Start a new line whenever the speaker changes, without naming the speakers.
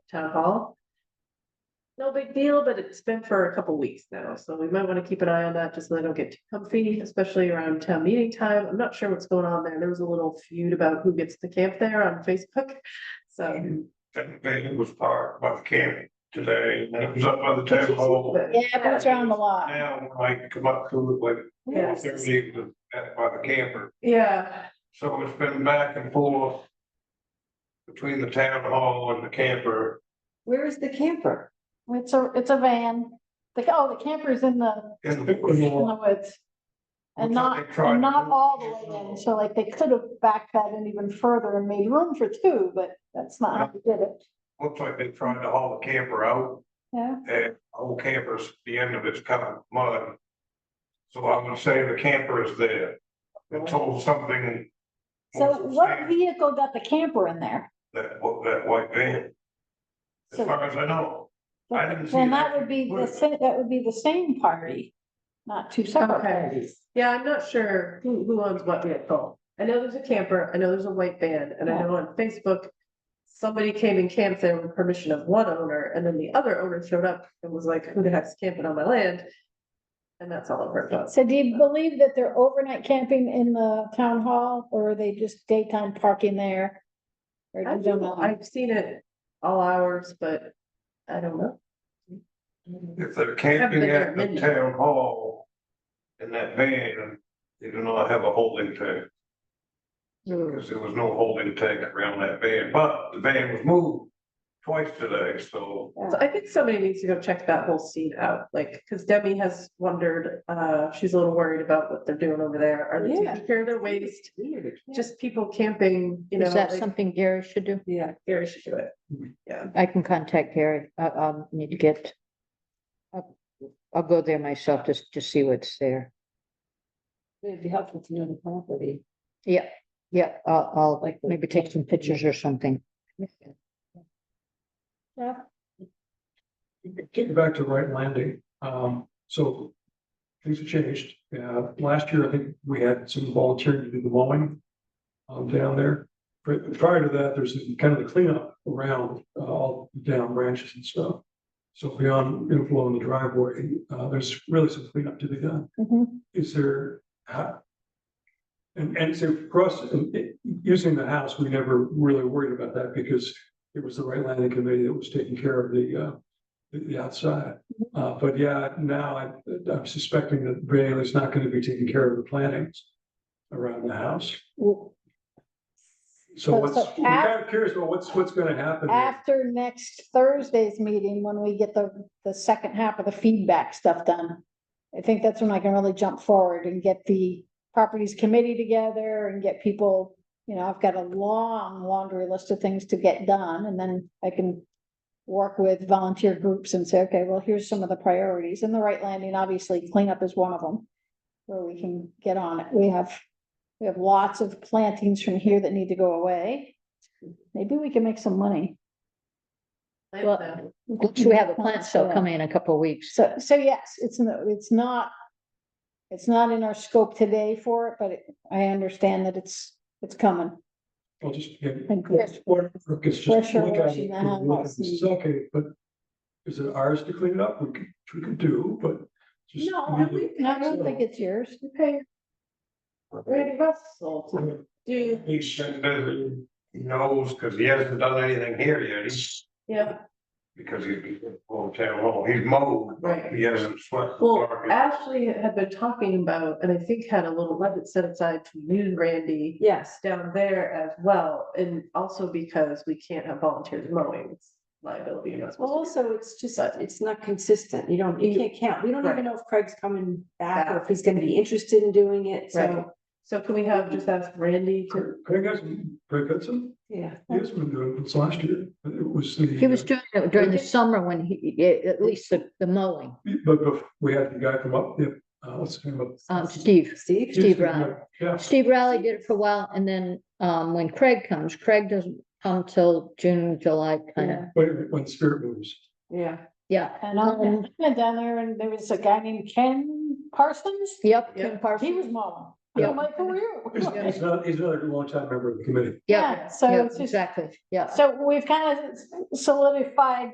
town hall. No big deal, but it's been for a couple weeks now, so we might want to keep an eye on that, just so they don't get too comfy, especially around town meeting time. I'm not sure what's going on there. There was a little feud about who gets to camp there on Facebook. So,
It was parked by the county today, and it was up by the town hall.
Yeah, but it's around the lot.
Now, when I come up to it, like,
Yes.
there's even at- by the camper,
yeah,
so it's been back and forth. Between the town hall and the camper,
Where is the camper?
It's a, it's a van. The, oh, the camper's in the,
and
in
the.
the woods. And not, and not all the way in. So like they could have backed that in even further and made room for two, but that's not how they did it.
Looks like they tried to haul the camper out,
Yeah.
and whole camper's, the end of it's kind of mud. So I'm gonna say the camper is there, until something.
So what vehicle got the camper in there?
That, that white van, as
So
far as I know. I didn't see
then
that.
that would be the same, that would be the same party, not two separate
Okay.
parties.
yeah, I'm not sure who, who owns what vehicle. I know there's a camper, I know there's a white van, and I know on Facebook. Somebody came and camped there with permission of one owner, and then the other owner showed up and was like, who the heck's camping on my land? And that's all I've heard about.
So do you believe that they're overnight camping in the town hall or are they just daytime parking there? Or
I
do you
don't know.
know?
I've seen it all hours, but I don't know.
If they're camping at the town hall. In that van, they do not have a holding tank, because there was no holding tank around that van, but the van was moved. Twice today, so
So I think somebody needs to go check that whole scene out, like, because Debbie has wondered, uh, she's a little worried about what they're doing over there. Are they
Yeah.
taking care of their waste? Just people camping, you know.
Is that
like-
something Gary should do?
Yeah, Gary should do it.
I can contact Gary. I, I'll need to get. I'll- I'll go there myself just to see what's there.
It'd be helpful to know the property.
Yeah, yeah, I'll, I'll like maybe take some pictures or something.
Getting back to right landing, um, so things have changed. Uh, last year, I think we had some volunteering to do the mowing um, down there. Pri- Prior to that, there's kind of the cleanup around uh, all the down branches and stuff. So beyond inflow in the driveway, uh, there's really some cleanup to be done.
Mhm.
Is there? how- And, and so for us, in- in- using the house, we never really worried about that because it was the right landing committee that was taking care of the, uh, the- the outside. Uh, but yeah, now I, I'm suspecting that Bailey's not gonna be taking care of the plantings around the house.
Well,
So
So-
what's,
so
I'm kind of curious about what's, what's gonna happen. there.
After next Thursday's meeting, when we get the, the second half of the feedback stuff done. I think that's when I can really jump forward and get the properties committee together and get people, you know, I've got a long laundry list of things to get done and then I can. Work with volunteer groups and say, okay, well, here's some of the priorities and the right landing, obviously cleanup is one of them. Where we can get on it. We have, we have lots of plantings from here that need to go away. Maybe we can make some money.
I
Well-
don't know.
We have a plant sale coming in a couple of weeks.
So, so yes, it's, no- it's not, it's not in our scope today for it, but it- I understand that it's, it's coming.
I'll just. yeah,
And Chris-
what- look, it's just
Pressure
look at
washing
it,
the
look at it,
house
This is
and-
okay, but is it ours to clean it up? We could, we could do, but. just
No,
leave
and we,
it.
And I don't think it's yours.
you pay Randy Russell to do,
he should, be- he knows, because he hasn't done anything here yet, he's,
yeah,
because he's been on town hall, he's mowed.
right.
He hasn't swept the
Well,
park.
Ashley had been talking about, and I think had a little limit set aside to you and Randy.
Yes.
down there as well, and also because we can't have volunteers mowing, it's liability. you're not supposed to do
Also, it's just,
But-
it's not consistent. You don't, you can't count. We don't
Right.
even know if Craig's coming back or if he's gonna be interested in doing it,
Right.
so,
So can we have, just ask Randy to,
Craig has, Craig Hudson,
yeah.
he has been doing it since last year. It was the. uh,
He was doing it during the summer when he, yeah, at least the, the mowing,
But bef- we had the guy come up, yeah, uh, what's his name up?
um, Steve.
Steve?
Steve
Houston,
Raleigh.
Yeah,
Steve Riley did it for a while and then, um, when Craig comes, Craig doesn't come till June, July kind of,
when, when Spirit moves.
Yeah.
yeah.
And I went down there and there was a guy named Ken Parsons.
Yep,
Yeah.
Ken Parsons.
He was mowing. I'm like, who are you?
He's another, he's another longtime member of the committee.
Yeah,
So
yeah,
it's just,
exactly, yeah.
so we've kind of solidified